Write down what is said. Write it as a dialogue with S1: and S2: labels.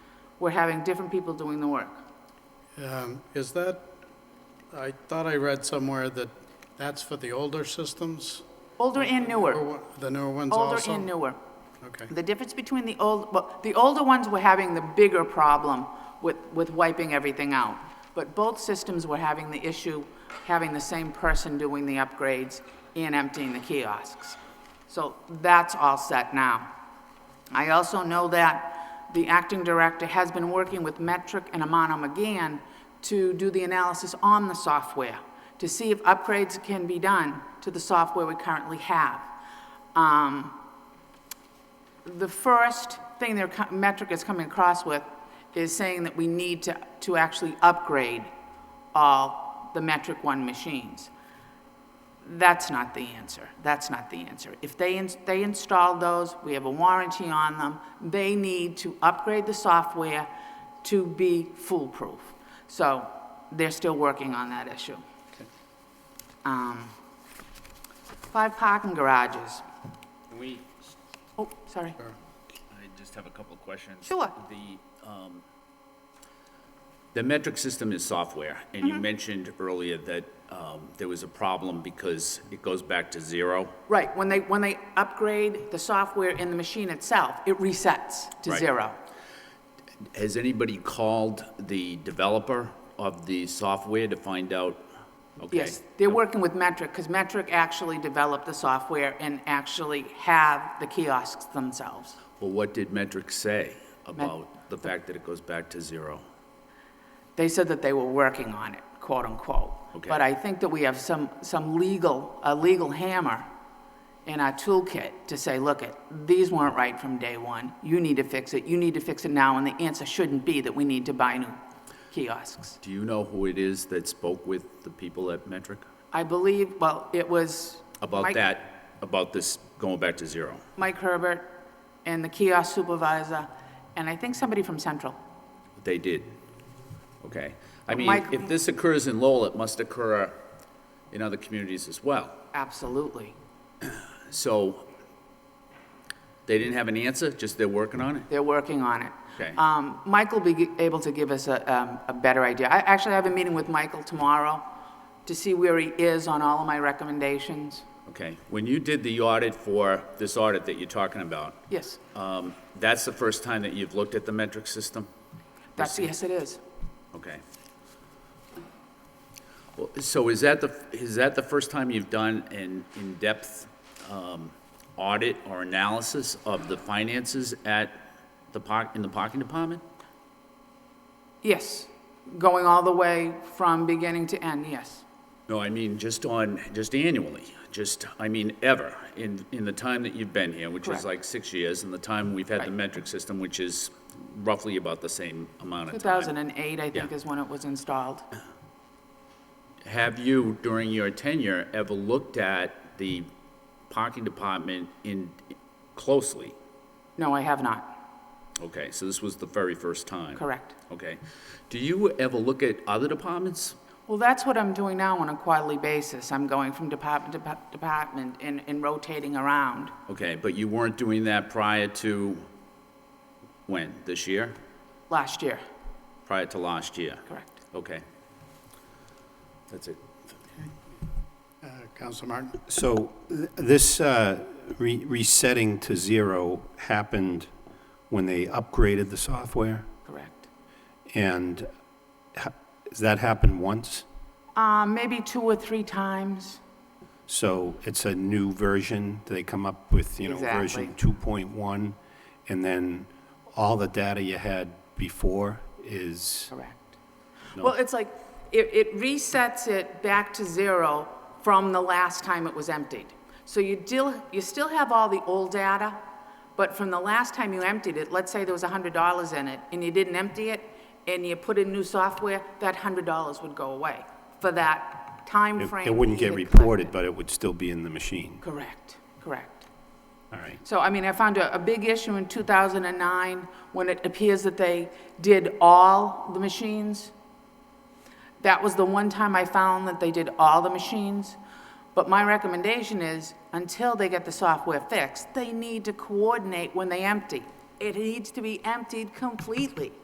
S1: we're having different people doing the work.
S2: Um, Is that, I thought I read somewhere that that's for the older systems?
S1: Older and newer,
S2: Or what- The newer ones
S1: older
S2: also?
S1: and newer.
S2: Okay,
S1: The difference between the old, well, the older ones were having the bigger problem with, with wiping everything out. But both systems were having the issue, having the same person doing the upgrades and emptying the kiosks. So that's all set now. I also know that the acting director has been working with Metric and Amano McGann to do the analysis on the software, to see if upgrades can be done to the software we currently have. Um, the first thing their co- metric is coming across with is saying that we need to, to actually upgrade all the metric one machines. That's not the answer. That's not the answer. If they, ins- they installed those, we have a warranty on them, they need to upgrade the software to be foolproof. So they're still working on that issue. Um, Five parking garages.
S3: Can we,
S1: Oh, sorry.
S3: I just have a couple of questions.
S1: Sure.
S3: The, um, the metric system is software, and
S1: Mm-hmm.
S3: you mentioned earlier that, um, there was a problem because it goes back to zero.
S1: Right, when they, when they upgrade the software in the machine itself, it resets to
S3: Right.
S1: zero.
S3: Has anybody called the developer of the software to find out? Okay.
S1: Yes, they're working with Metric, because Metric actually developed the software and actually have the kiosks themselves.
S3: Well, what did metric say about the fact that it goes back to zero?
S1: They said that they were working on it, quote unquote.
S3: Okay.
S1: But I think that we have some, some legal, a legal hammer in our toolkit to say, look, it, these weren't right from day one. You need to fix it, you need to fix it now, and the answer shouldn't be that we need to buy new kiosks.
S3: Do you know who it is that spoke with the people at metric
S1: I believe, well, it was.
S3: about
S1: Mike-
S3: that, about this going back to zero?
S1: Mike Herbert and the kiosk supervisor, and I think somebody from Central.
S3: They did. Okay. I mean,
S1: Mike-
S3: if this occurs in Lowell, it must occur uh, in other communities as well.
S1: Absolutely.
S3: So they didn't have an answer, just they're working on it?
S1: They're working on it.
S3: Okay.
S1: Um, Mike will be gi- able to give us a, um, a better idea. I actually have a meeting with Michael tomorrow to see where he is on all of my recommendations.
S3: Okay. When you did the audit for this audit that you're talking about,
S1: Yes,
S3: um, that's the first time that you've looked at the metric system?
S1: that's, yes, it is.
S3: Okay. Well, So is that the, is that the first time you've done an in-depth um, audit or analysis of the finances at the park, in the parking department?
S1: Yes, going all the way from beginning to end, yes.
S3: No, I mean, just on, just annually, just, I mean, ever, in, in the time that you've been here, which
S1: Correct.
S3: is like six years, and the time we've had the
S1: Right.
S3: metric system, which is roughly about the same amount of time.
S1: 2008, I think,
S3: Yeah.
S1: is when it was installed.
S3: Have you, during your tenure, ever looked at the parking department in, closely?
S1: No, I have not,
S3: Okay, so this was the very first time?
S1: correct.
S3: Okay. Do you ever look at other departments?
S1: Well, that's what I'm doing now on a quarterly basis. I'm going from department to depa- department and, and rotating around.
S3: Okay, but you weren't doing that prior to, when, this year?
S1: Last year,
S3: Prior to last year?
S1: correct.
S3: Okay. That's it.
S2: Uh, Counselor Martin?
S4: So th- this uh, re- resetting to zero happened when they upgraded the software?
S1: Correct.
S4: And ha- has that happened once?
S1: Uh, maybe two or three times.
S4: So it's a new version, they come up with, you know, version 2.1, and then all the data you had before is,
S1: Correct. Well, it's like, it, it resets it back to zero from the last time it was emptied. So you deal, you still have all the old data, but from the last time you emptied it, let's say there was hundred dollars in it, and you didn't empty it, and you put in new software, that hundred dollars would go away for that time
S4: it
S1: frame.
S4: it wouldn't
S1: you
S4: get
S1: had
S4: reported,
S1: collected.
S4: but it would still be in the machine.
S1: Correct, correct.
S4: All right.
S1: So, I mean, I found a, a big issue in 2009, when it appears that they did all the machines. That was the one time I found that they did all the machines. But my recommendation is, until they get the software fixed, they need to coordinate when they empty. It needs to be emptied completely.